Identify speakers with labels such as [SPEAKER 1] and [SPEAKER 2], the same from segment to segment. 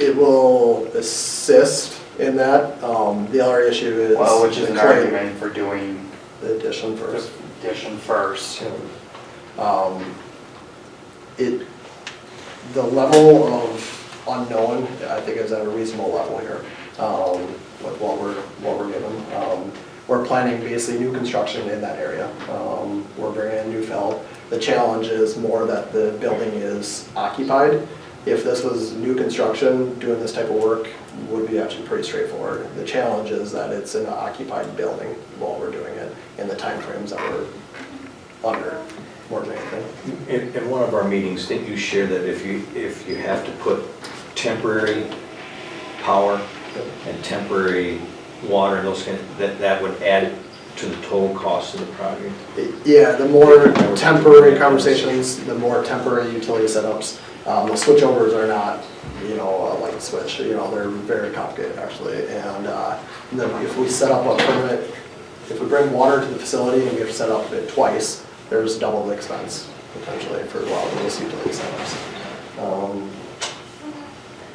[SPEAKER 1] It will assist in that. Um, The other issue is.
[SPEAKER 2] Well, which is
[SPEAKER 1] the
[SPEAKER 2] an
[SPEAKER 1] claim,
[SPEAKER 2] argument for doing
[SPEAKER 1] The addition first.
[SPEAKER 2] addition first.
[SPEAKER 1] Um, It, the level of unknown, I think is at a reasonable level here, um, with what we're, what we're given. Um, We're planning basically new construction in that area. Um, We're bringing in new fill. The challenge is more that the building is occupied. If this was new construction, doing this type of work would be actually pretty straightforward. The challenge is that it's an occupied building while we're doing it, and the timeframes that we're under, more than anything.
[SPEAKER 3] In, in one of our meetings, didn't you share that if you, if you have to put temporary power and temporary water, and those kind, that, that would add to the total cost of the project?
[SPEAKER 1] Yeah, the more temporary conversations, the more temporary utility setups. Um, The switchovers are not, you know, a light switch, you know, they're very complicated actually. And uh, and then if we set up a permit, if we bring water to the facility and we have to set up it twice, there's double the expense potentially for a lot of those utility setups. Um,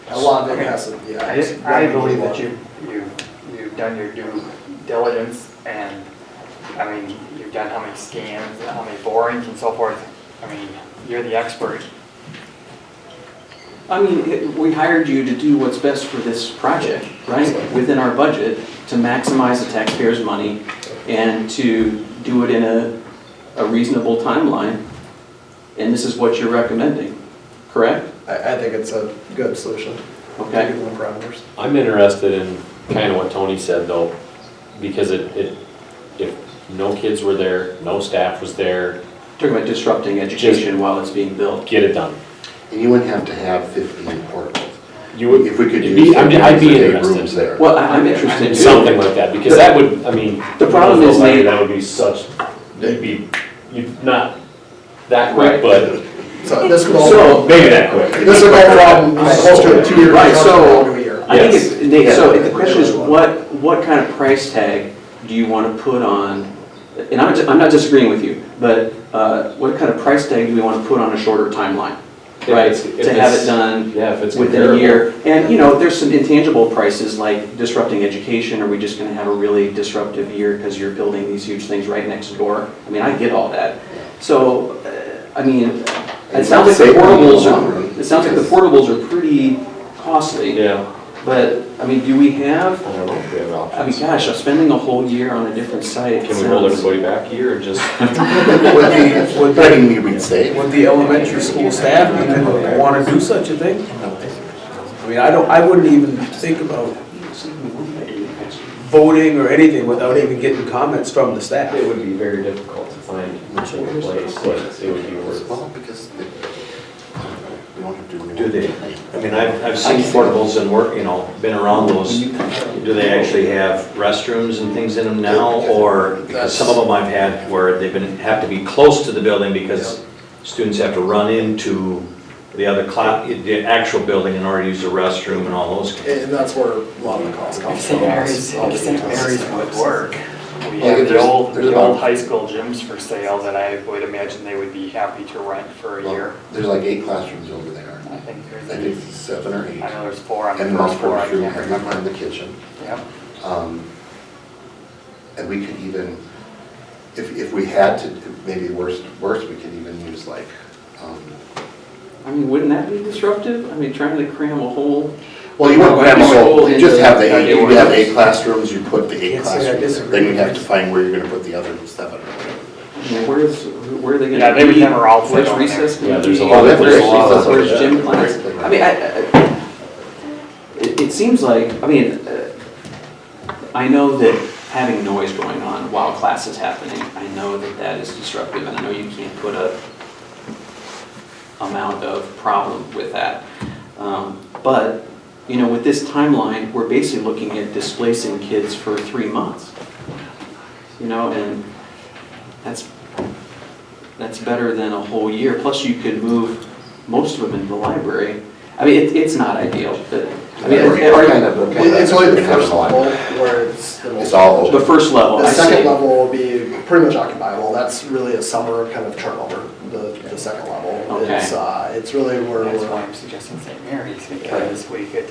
[SPEAKER 1] A lot of it has to, yeah.
[SPEAKER 2] I
[SPEAKER 1] it's
[SPEAKER 2] just- I
[SPEAKER 1] revenue
[SPEAKER 2] believe that
[SPEAKER 1] one.
[SPEAKER 2] you, you, you've done your due diligence and, I mean, you've done how many scans, how many borings and so forth. I mean, you're the expert.
[SPEAKER 4] I mean, it- we hired you to do what's best for this project, right? Within our budget, to maximize the taxpayers' money and to do it in a, a reasonable timeline. And this is what you're recommending, correct?
[SPEAKER 1] I, I think it's a good solution.
[SPEAKER 4] Okay.
[SPEAKER 1] Given the parameters.
[SPEAKER 5] I'm interested in kind of what Tony said though, because it, it, if no kids were there, no staff was there,
[SPEAKER 4] Talking about disrupting education while it's being built.
[SPEAKER 5] get it done.
[SPEAKER 6] And you wouldn't have to have 15 portables.
[SPEAKER 5] You would,
[SPEAKER 6] If we could
[SPEAKER 5] it'd
[SPEAKER 6] use
[SPEAKER 5] be- I'd be-
[SPEAKER 6] the
[SPEAKER 5] I'd be
[SPEAKER 6] rooms
[SPEAKER 5] interested.
[SPEAKER 6] there.
[SPEAKER 4] Well, I- I'm interested
[SPEAKER 5] in
[SPEAKER 4] too.
[SPEAKER 5] something like that, because that would, I mean.
[SPEAKER 4] The problem is, Nate-
[SPEAKER 5] That would be such, you'd be, you'd not that quick, but
[SPEAKER 1] So this could all.
[SPEAKER 4] So,
[SPEAKER 5] maybe that quick.
[SPEAKER 1] This will go from close to a two-year
[SPEAKER 4] Right, so-
[SPEAKER 1] construction to a year.
[SPEAKER 4] I think
[SPEAKER 5] Yes.
[SPEAKER 4] it's, Nate, so
[SPEAKER 1] Yeah.
[SPEAKER 4] the question is, what, what kind of price tag do you want to put on? And I'm, I'm not disagreeing with you, but uh, what kind of price tag do we want to put on a shorter timeline?
[SPEAKER 5] If
[SPEAKER 4] Right,
[SPEAKER 5] it's- if
[SPEAKER 4] to have
[SPEAKER 5] it's-
[SPEAKER 4] it done
[SPEAKER 5] Yeah, if it's
[SPEAKER 4] within a
[SPEAKER 5] comparable.
[SPEAKER 4] year. And, you know, there's some intangible prices like disrupting education. Are we just going to have a really disruptive year because you're building these huge things right next door? I mean, I get all that. So, uh, I mean, it
[SPEAKER 6] And
[SPEAKER 4] sounds like the
[SPEAKER 6] save money in the
[SPEAKER 4] portables
[SPEAKER 6] long run.
[SPEAKER 4] are, it sounds like the portables are pretty costly.
[SPEAKER 5] Yeah.
[SPEAKER 4] But, I mean, do we have,
[SPEAKER 6] I don't know if we have
[SPEAKER 4] I mean,
[SPEAKER 6] options.
[SPEAKER 4] gosh, I'm spending a whole year on a different site.
[SPEAKER 5] Can we hold
[SPEAKER 4] sounds-
[SPEAKER 5] everybody back here and just?
[SPEAKER 6] Would the, would the... I didn't mean we'd say.
[SPEAKER 7] Would the elementary school staff even want to do such a thing? I mean, I don't, I wouldn't even think about voting or anything without even getting comments from the staff.
[SPEAKER 5] It would be very difficult to find much of a place, but it would be worth.
[SPEAKER 6] Well, because they- we don't have to...
[SPEAKER 3] Do they, I mean, I've, I've seen portables and work, you know, been around those. Do they actually have restrooms and things in them now, or, because some of them I've had where they've been, have to be close to the building because students have to run into the other cla, the actual building in order to use the restroom and all those. kinds
[SPEAKER 1] And that's where a lot of the costs come from.
[SPEAKER 2] If St. Mary's, if St. Mary's would work, we
[SPEAKER 6] Well,
[SPEAKER 2] have the
[SPEAKER 6] there's-
[SPEAKER 2] old,
[SPEAKER 6] there's
[SPEAKER 2] the old
[SPEAKER 6] about-
[SPEAKER 2] high school gyms for sale that I would imagine they would be happy to rent for a year.
[SPEAKER 6] There's like eight classrooms over there.
[SPEAKER 2] I think there's,
[SPEAKER 6] I think it's seven or eight.
[SPEAKER 2] I know there's four on the
[SPEAKER 6] And
[SPEAKER 2] first
[SPEAKER 6] most
[SPEAKER 2] floor, I
[SPEAKER 6] portable room,
[SPEAKER 2] can't
[SPEAKER 6] and
[SPEAKER 2] remember.
[SPEAKER 6] one in the kitchen.
[SPEAKER 2] Yep.
[SPEAKER 6] Um, And we could even, if, if we had to, maybe worst, worst, we could even use like, um,
[SPEAKER 4] I mean, wouldn't that be disruptive? I mean, trying to cram a whole,
[SPEAKER 6] well, you wouldn't cram the
[SPEAKER 4] School
[SPEAKER 6] whole, you just
[SPEAKER 4] into
[SPEAKER 6] have the eight,
[SPEAKER 4] Monday
[SPEAKER 6] you have
[SPEAKER 4] mornings.
[SPEAKER 6] eight classrooms, you put the eight
[SPEAKER 7] Can't say I
[SPEAKER 6] classrooms. there. Then
[SPEAKER 7] disagree.
[SPEAKER 6] you have to find where you're gonna put the other seven. or whatever.
[SPEAKER 4] I mean, where's, where are they going to be?
[SPEAKER 2] Yeah, they would have a raw foot
[SPEAKER 4] Where's
[SPEAKER 2] on there.
[SPEAKER 4] recess going to be?
[SPEAKER 5] Yeah, there's a
[SPEAKER 6] lot-
[SPEAKER 4] Where's
[SPEAKER 6] there's a lot
[SPEAKER 4] recess?
[SPEAKER 6] of-
[SPEAKER 4] Where's gym class?
[SPEAKER 6] Great.
[SPEAKER 4] I mean, I, I- it, it seems like, I mean, uh, I know that having noise going on while class is happening, I know that that is disruptive, and I know you can't put a amount of problem with that. Um, But, you know, with this timeline, we're basically looking at displacing kids for three months. You know, and that's, that's better than a whole year. Plus, you could move most of them into the library. I mean, it, it's not ideal, but, I mean,
[SPEAKER 6] We're kind
[SPEAKER 4] are-
[SPEAKER 6] of looking at
[SPEAKER 1] It's only the
[SPEAKER 6] having
[SPEAKER 1] first
[SPEAKER 6] a lot.
[SPEAKER 1] level where it's. the most-
[SPEAKER 6] It's all
[SPEAKER 4] the
[SPEAKER 6] open.
[SPEAKER 4] first level,
[SPEAKER 1] The
[SPEAKER 4] I
[SPEAKER 1] second
[SPEAKER 4] see.
[SPEAKER 1] level will be pretty much occupiable, that's really a summer kind of turnover, the, the second level.
[SPEAKER 4] Okay.
[SPEAKER 1] It's, uh, it's really where
[SPEAKER 2] That's
[SPEAKER 1] we're.
[SPEAKER 2] why I'm suggesting St. Mary's, because we could